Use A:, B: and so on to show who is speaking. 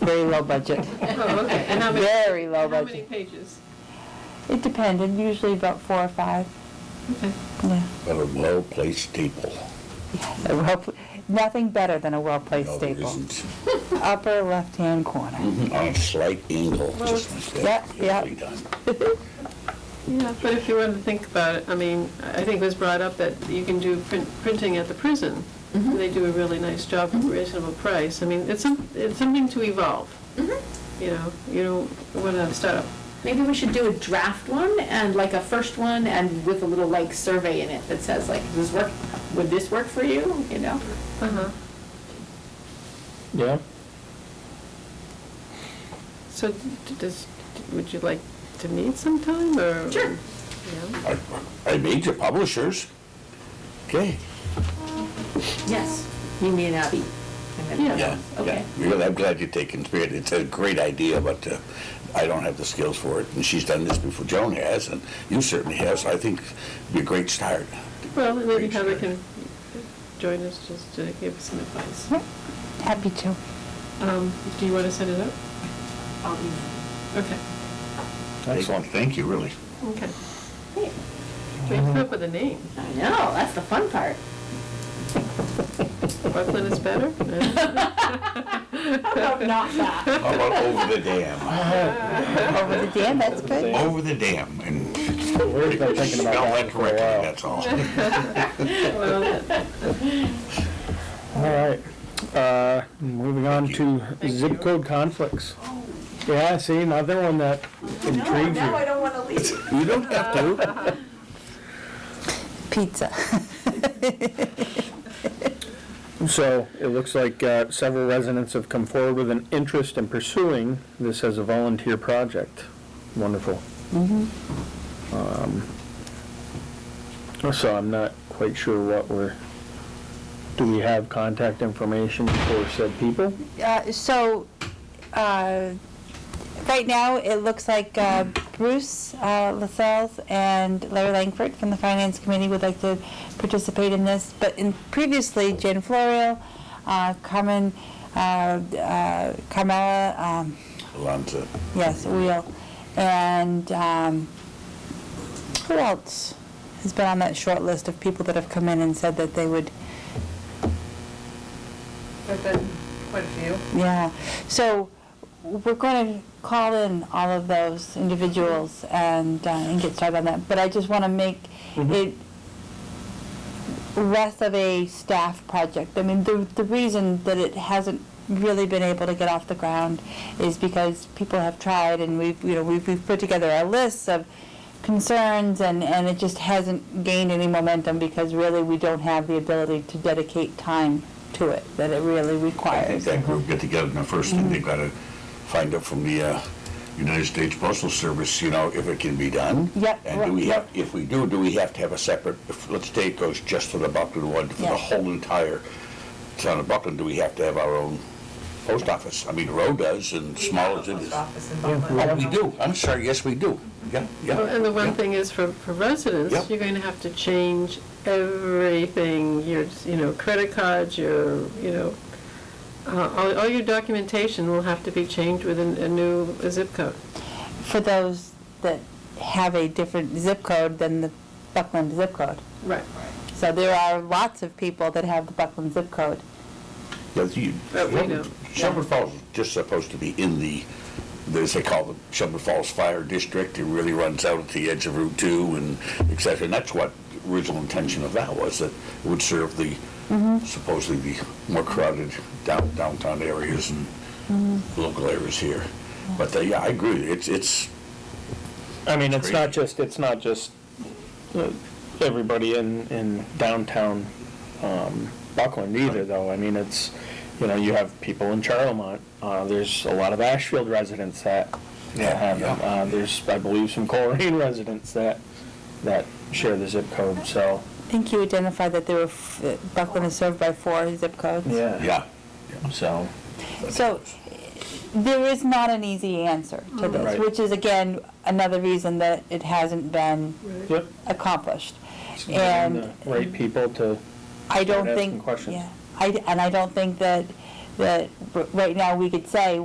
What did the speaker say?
A: low budget.
B: Oh, okay. And how many-
A: Very low
B: How many
A: budget.
B: pages?
A: It depended, usually about four or five.
B: Okay.
A: Yeah.
C: But a well-placed staple.
A: Yes, a well, pl- nothing better than a well-placed
C: No, there
A: staple.
C: isn't.
A: Upper left-hand corner.
D: Mm-hmm.
C: On a slight angle,
B: Well,
C: just like that.
A: yeah, yeah.
C: Usually done.
B: Yeah, but if you want to think about it, I mean, I think it was brought up that you can do print- printing at the prison. They do a really nice job for a reasonable price. I mean, it's some, it's something to evolve. You know, you don't want to start up.
E: Maybe we should do a draft one and like a first one and with a little like survey in it that says like, does this work, would this work for you, you know?
B: Uh-huh.
D: Yeah?
B: So d- does, would you like to meet sometime or?
E: Sure.
B: Yeah.
C: Our our major publishers. Okay,
E: Yes. You mean Abby? and then-
B: Yeah.
C: yeah.
E: Okay.
C: Really, I'm glad you're taking spirit. It's a great idea, but uh, I don't have the skills for it. And she's done this before. Joan has, and you certainly have. So I think it'd be a great start.
B: Well, and maybe
C: Great
B: Heather
C: start.
B: can join us just to give us some advice.
A: Yep, Happy to.
B: Um, Do you want to set it up?
E: I'll be-
B: Okay,
D: Excellent.
C: Thank you, really.
B: okay.
E: Hey,
B: We have to come up with a name.
E: I know, that's the fun part.
B: Brooklyn is better?
E: How about not that?
C: How about over the dam?
A: Over the dam, that's good.
C: Over the dam and
D: We've been thinking about
C: spell that
D: that for
C: correctly, that's all.
D: a while.
B: Well,
D: All right, Uh, moving on to
B: Thank you.
D: zip code conflicts. Yeah, see, another one that
E: No,
D: intrigues
E: now I
D: you.
E: don't want to leave.
C: You don't have to.
A: Pizza.
D: So it looks like uh, several residents have come forward with an interest in pursuing this as a volunteer project. Wonderful. Um, So I'm not quite sure what we're, do we have contact information for said people?
A: Uh, So, uh, right now, it looks like uh, Bruce uh, Lascelles and Larry Langford from the Finance Committee would like to participate in this, but in, previously, Jan Florio, uh, Carmen, uh, uh, Carmella, um,
C: Alonzo.
A: Yes, Wheel. And um, who else has been on that short list of people that have come in and said that they would,
F: There've been quite a few.
A: yeah. So we're going to call in all of those individuals and, uh, and get started on that. But I just want to make it less of a staff project. I mean, the, the reason that it hasn't really been able to get off the ground is because people have tried and we've, you know, we've, we've put together our lists of concerns and, and it just hasn't gained any momentum because really we don't have the ability to dedicate time to it that it really
C: I think
A: requires.
C: that group get together, and the first thing they've got to find out from the uh, United States Postal Service, you know, if it can be done.
A: Yep,
C: And do we
A: right,
C: have, if we do, do we have to have a separate, if- let's say it goes just for the Buckland one, for the
A: Yeah.
C: whole entire town of Buckland, do we have to have our own post office? I mean, Roe does, and smaller
F: Post
C: cities.
F: office in
C: Oh,
F: Buckland.
C: we do, I'm sorry, yes, we do, yeah, yeah.
B: And the one
C: yeah.
B: thing is for, for residents,
C: Yep.
B: you're going to have to change everything, your, you know, credit cards, your, you know, uh, all, all your documentation will have to be changed with a, a new zip code.
A: For those that have a different zip code than the Buckland zip code.
B: Right.
A: So there are lots of people that have the Buckland zip code.
C: Yeah, you-
B: But we don't,
C: Shelburne Falls is just supposed to be in the, as they call it, Shelburne Falls Fire District. It really runs out at the edge of Route 2 and et cetera. And that's what the original intention of that was, that it would serve the supposedly the more crowded down- downtown areas and local areas here. But uh, yeah, I agree. with you. It's, it's,
D: I mean, it's not just, it's not just uh, everybody in, in downtown um, Buckland either, though. I mean, it's, you know, you have people in Charlemont. Uh, There's a lot of Ashfield residents that that
C: Yeah,
D: have them.
C: yeah.
D: Uh, There's, I believe, some Coleraine residents that, that share the zip code, so.
A: I think you identified that there were, f- that Buckland is served by four zip codes.
C: yeah.
D: So,
A: So there is not an easy answer to this,
D: Right.
A: which is again, another reason that it hasn't been
D: yep.
A: accomplished.
D: getting
A: And
D: the Right people to,
A: I don't
D: Start asking
A: think,
D: questions.
A: yeah, I, and I don't think that, that r- right now we could say,